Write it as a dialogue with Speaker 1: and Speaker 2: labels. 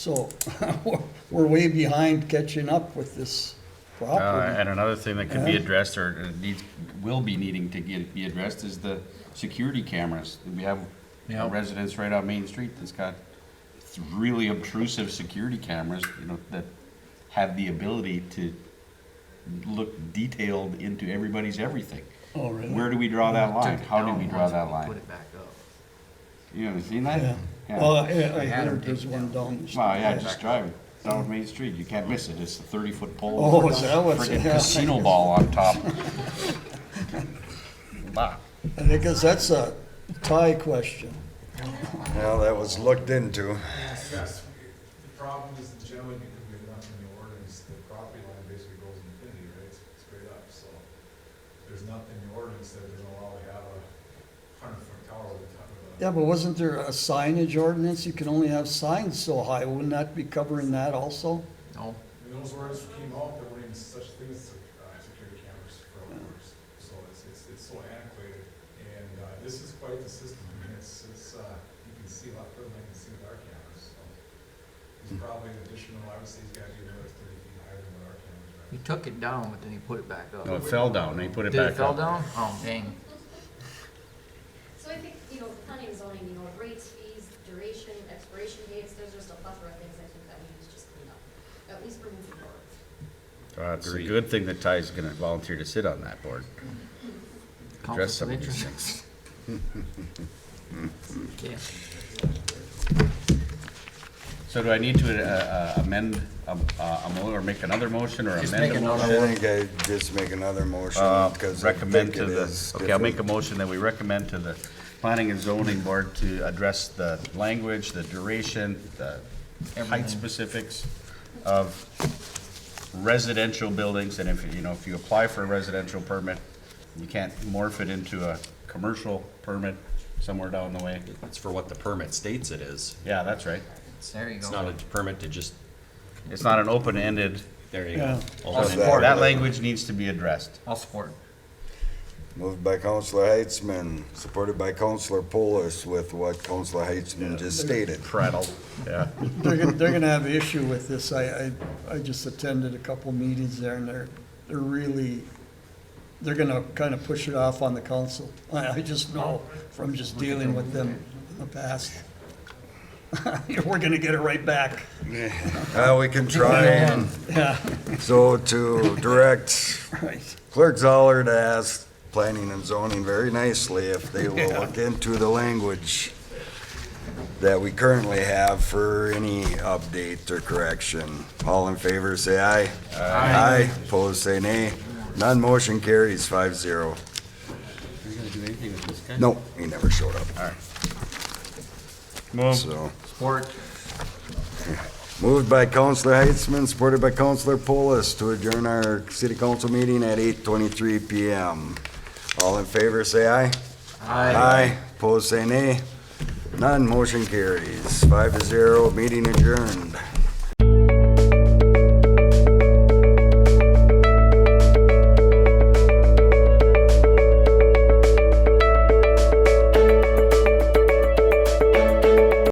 Speaker 1: So we're- we're way behind catching up with this
Speaker 2: Uh,
Speaker 1: property.
Speaker 2: And another thing that could be addressed or uh, needs, will be needing to get, be addressed is the security cameras. We have
Speaker 3: Yeah.
Speaker 2: residents right on Main Street that's got really obtrusive security cameras, you know, that have the ability to look detailed into everybody's everything.
Speaker 1: Oh, really?
Speaker 2: Where do we draw that line?
Speaker 3: Took it
Speaker 2: How do
Speaker 3: down
Speaker 2: we draw
Speaker 3: once
Speaker 2: that
Speaker 3: and Put
Speaker 2: line?
Speaker 3: it back up.
Speaker 2: You ever seen that?
Speaker 1: Yeah.
Speaker 2: Yeah.
Speaker 1: Well, I I
Speaker 3: I had 'em
Speaker 1: heard there's
Speaker 3: taken
Speaker 1: one
Speaker 3: down.
Speaker 1: down the street.
Speaker 2: Well, yeah, just driving down Main Street, you can't miss it, it's a thirty-foot pole.
Speaker 1: Oh,
Speaker 2: with
Speaker 1: is
Speaker 2: a
Speaker 1: that what's-
Speaker 2: friggin'
Speaker 1: yeah.
Speaker 2: Casino ball on top. Bah.
Speaker 1: And I guess that's a tie question.
Speaker 4: Well, that was looked into.
Speaker 5: Yes, yes. The problem is the gentleman, because we're not in the ordinance, the property line basically goes infinity, right? It's Straight up, so there's nothing in the ordinance that doesn't allow to have a hundred foot tower with a ton of. uh,
Speaker 1: Yeah, but wasn't there a signage ordinance? You can only have signs so high. Wouldn't that be covering that also?
Speaker 3: No,
Speaker 5: And those words came out, there weren't even such things as uh, security cameras for outdoors. So it's, it's, it's so antiquated, and, uh, this is quite the system, I mean, it's, it's, uh, you can see a lot further than you can see with our cameras, so. It's probably an additional, I would say it's gotta be another thirty feet higher than what our cameras are.
Speaker 3: he took it down, but then he put it back up.
Speaker 2: No, it fell down, they put it
Speaker 3: Did
Speaker 2: back up.
Speaker 3: it fell down? Oh, dang.
Speaker 6: So I think, you know, planning and zoning, you know, rates, fees, duration, expiration dates, there's just a plethora of things I think that we need to just clean up, at least for moving forward.
Speaker 2: Uh, It's a good thing that Ty's gonna volunteer to sit on that board.
Speaker 3: Conflict
Speaker 2: some
Speaker 3: of
Speaker 2: of these
Speaker 3: interest. Okay.
Speaker 2: So do I need to uh, uh, amend, um, uh, a mo- or make another motion or
Speaker 3: Just
Speaker 2: amend
Speaker 3: make
Speaker 2: a
Speaker 3: another
Speaker 4: I
Speaker 2: motion?
Speaker 4: think I just make another motion
Speaker 2: Uh,
Speaker 4: because I
Speaker 2: Recommend
Speaker 4: think
Speaker 2: to
Speaker 4: it
Speaker 2: the,
Speaker 4: is.
Speaker 2: okay, I'll make a
Speaker 4: different.
Speaker 2: motion that we recommend to the planning and zoning board to address the language, the duration, the height
Speaker 3: Everything.
Speaker 2: specifics of residential buildings, and if, you know, if you apply for a residential permit, you can't morph it into a commercial permit somewhere down the way.
Speaker 7: It's for what the permit states it is.
Speaker 2: Yeah, that's right.
Speaker 3: There you
Speaker 7: It's not
Speaker 3: go.
Speaker 7: a permit to just,
Speaker 2: It's not an open-ended,
Speaker 7: there
Speaker 1: Yeah.
Speaker 7: you go.
Speaker 1: That's
Speaker 7: Open-ended.
Speaker 4: that.
Speaker 2: that language needs to be addressed.
Speaker 3: I'll support.
Speaker 4: Moved by Counselor Heitzman, supported by Counselor Polis with what Counselor Heitzman just stated.
Speaker 2: Prattle. Yeah.
Speaker 1: They're, gonna- they're gonna have issue with this. I, I, I just attended a couple meetings there and they're, they're really, they're gonna kind of push it off on the council. I, I just know from just dealing with them in the past. We're gonna get it right back.
Speaker 4: Uh, we can try and,
Speaker 1: Yeah,
Speaker 4: so to direct
Speaker 1: right.
Speaker 4: Clerk Zoller to ask planning and zoning very nicely if they will look into the language that we currently have for any update or correction. All in favor, say aye. Aye. Opposed, say nay. None motion carries five zero.
Speaker 2: Are you gonna do anything with this guy?
Speaker 4: No, he never showed up,
Speaker 2: Move.
Speaker 4: so.
Speaker 3: Support.
Speaker 4: Moved by Counselor Heitzman, supported by Counselor Polis to adjourn our city council meeting at eight twenty-three PM. All in favor, say aye. Aye. Opposed, say nay. None, motion carries. Five to zero, meeting adjourned.